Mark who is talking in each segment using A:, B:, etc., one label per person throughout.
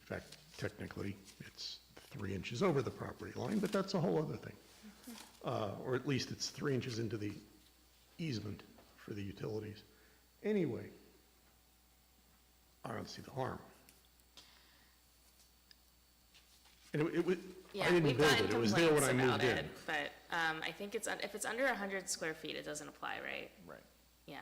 A: fact, technically, it's three inches over the property line, but that's a whole other thing.
B: Mm-hmm.
A: Uh, Or at least it's three inches into the easement for the utilities. Anyway, I don't see the harm. And it- it was, I
B: Yeah,
A: didn't
B: we've
A: build
B: gotten
A: it, it was there when I
B: complaints
A: moved
B: about
A: in.
B: it, But um, I think it's, un- if it's under 100 square feet, it doesn't apply, right?
C: Right.
B: Yeah.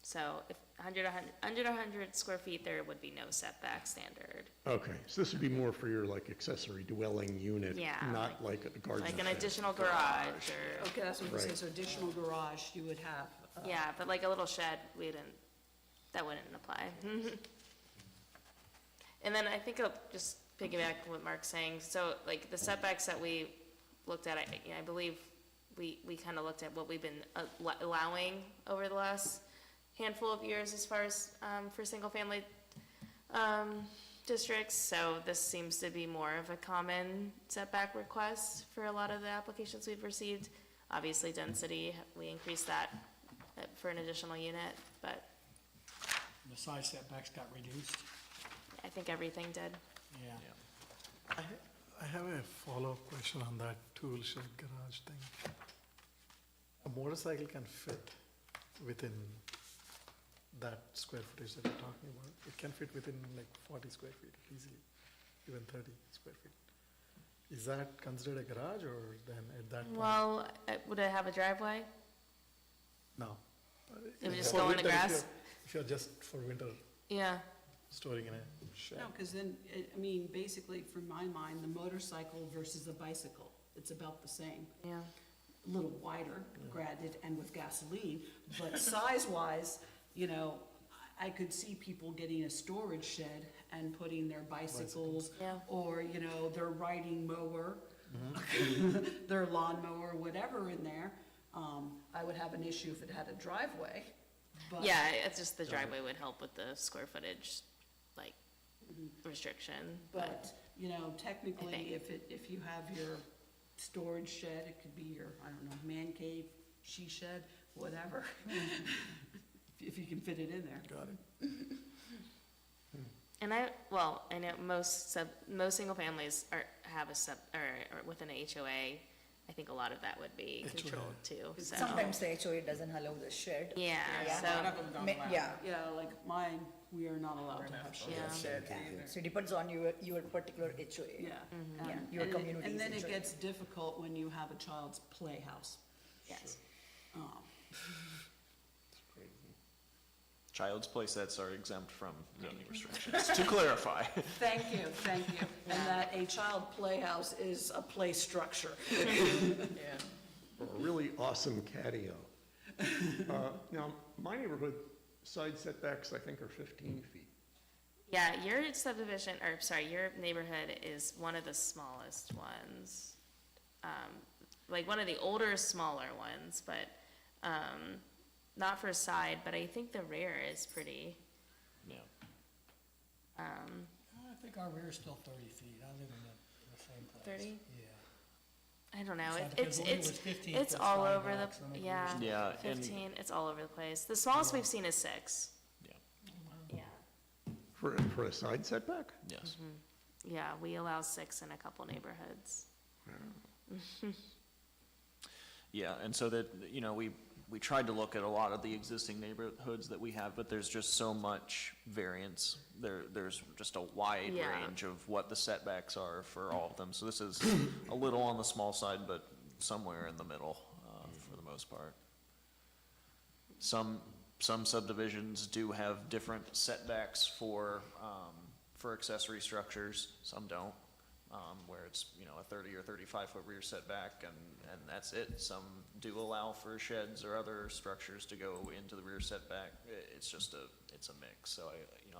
B: So if 100, 100 under 100 square feet, there would be no setback standard.
A: Okay, so this would be more for your like accessory dwelling unit,
B: Yeah,
A: not like a garden.
B: Like an
A: shed.
B: additional garage or,
D: Okay, that's what you say,
A: Right.
D: so additional garage you would have. uh,
B: yeah, but like a little shed, we didn't, that wouldn't apply. And then I think I'll just piggyback on what Mark's saying. So like the setbacks that we looked at, I, you know, I believe we, we kind of looked at what we've been al- allowing over the last handful of years as far as, um, for single-family, um, districts. So this seems to be more of a common setback request for a lot of the applications we've received. Obviously density, we increased that uh, for an additional unit, but
E: The side setbacks got reduced,
B: I think everything did.
E: yeah.
C: Yeah.
F: I I have a follow-up question on that tool-shed garage thing. A motorcycle can fit within that square footage that you're talking about. It can fit within like 40 square feet easily, even 30 square feet. Is that considered a garage or then at that point?
B: Well, uh, would it have a driveway?
F: No.
B: It would just
F: For
B: go in the
F: winter, if
B: grass?
F: you're- If you're just for winter
B: Yeah,
F: storing in a
D: No,
F: shed.
D: because then, I- I mean, basically, from my mind, the motorcycle versus the bicycle, it's about the same.
B: yeah.
D: A little wider, granted, and with gasoline, but size-wise, you know, I I could see people getting a storage shed and putting their bicycles.
B: Yeah.
D: Or, you know, their riding mower, their lawnmower, whatever in there. Um, I would have an issue if it had a driveway, but.
B: Yeah, it's just the driveway would help with the square footage, like, Mm-hmm. restriction, but,
D: But, you know,
B: I think-
D: technically, if it, if you have your storage shed, it could be your, I don't know, man cave, she shed, whatever. If you can fit it in there.
F: Got it.
B: and I, well, I know most sub, most single families are, have a sub, or, or within a HOA, I think a lot of that would be controlled too, so.
G: Sometimes the HOA doesn't allow the shed.
B: Yeah, so,
G: Ma- Yeah.
D: Yeah, like mine, we are not allowed to have shed.
B: yeah,
G: yeah. So it depends on your, your particular HOA.
D: Yeah. and-
G: Yeah, your
D: and it-
G: community's
D: And then it
G: HOA.
D: gets difficult when you have a child's playhouse.
B: yes.
D: Um,
C: Child's play sets are exempt from zoning restrictions, to clarify.
D: Thank you, thank you. And that a child playhouse is a play structure.
A: or a really awesome catio. Uh, Now, my neighborhood side setbacks, I think, are 15 feet.
B: Yeah, your subdivision, or sorry, your neighborhood is one of the smallest ones. Um, like one of the older, smaller ones, but, um, not for side, but I think the rear is pretty,
C: Yeah.
B: um,
E: I think our rear is still thirty feet, I live in the, the same place.
B: 30?
E: Yeah.
B: I don't know,
E: So I
B: it-
E: think
B: it's,
E: I believe it
B: it's,
E: was 15
B: it's
E: foot
B: all
E: side
B: over
E: box, I think
B: the,
E: it
B: yeah.
E: was.
C: Yeah, and-
B: Fifteen, it's all over the place. The smallest we've seen is six.
C: Yeah.
E: Oh.
B: Yeah,
A: For, for a side setback?
C: Yes.
B: yeah, we allow six in a couple neighborhoods.
C: Yeah, and so that, you know, we, we tried to look at a lot of the existing neighborhoods that we have, but there's just so much variance. There, there's just a wide
B: Yeah.
C: range of what the setbacks are for all of them. So this is a little on the small side, but somewhere in the middle, uh, for the most part. Some, some subdivisions do have different setbacks for, um, for accessory structures, some don't. Um, where it's, you know, a thirty or thirty-five foot rear setback and, and that's it. Some do allow for sheds or other structures to go into the rear setback. I- it's just a, it's a mix, so I, you know,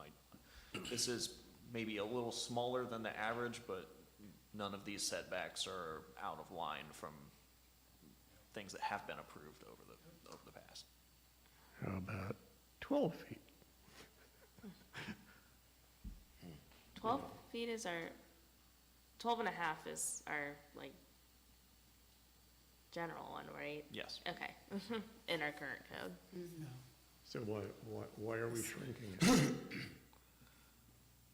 C: I, this is maybe a little smaller than the average, but none of these setbacks are out of line from things that have been approved over the, over the past.
A: How about 12 feet?
B: Twelve feet is our, twelve and a half is our, like, general one, right?
C: Yes.
B: Okay, in our current code.
A: So why, why, why are we shrinking it?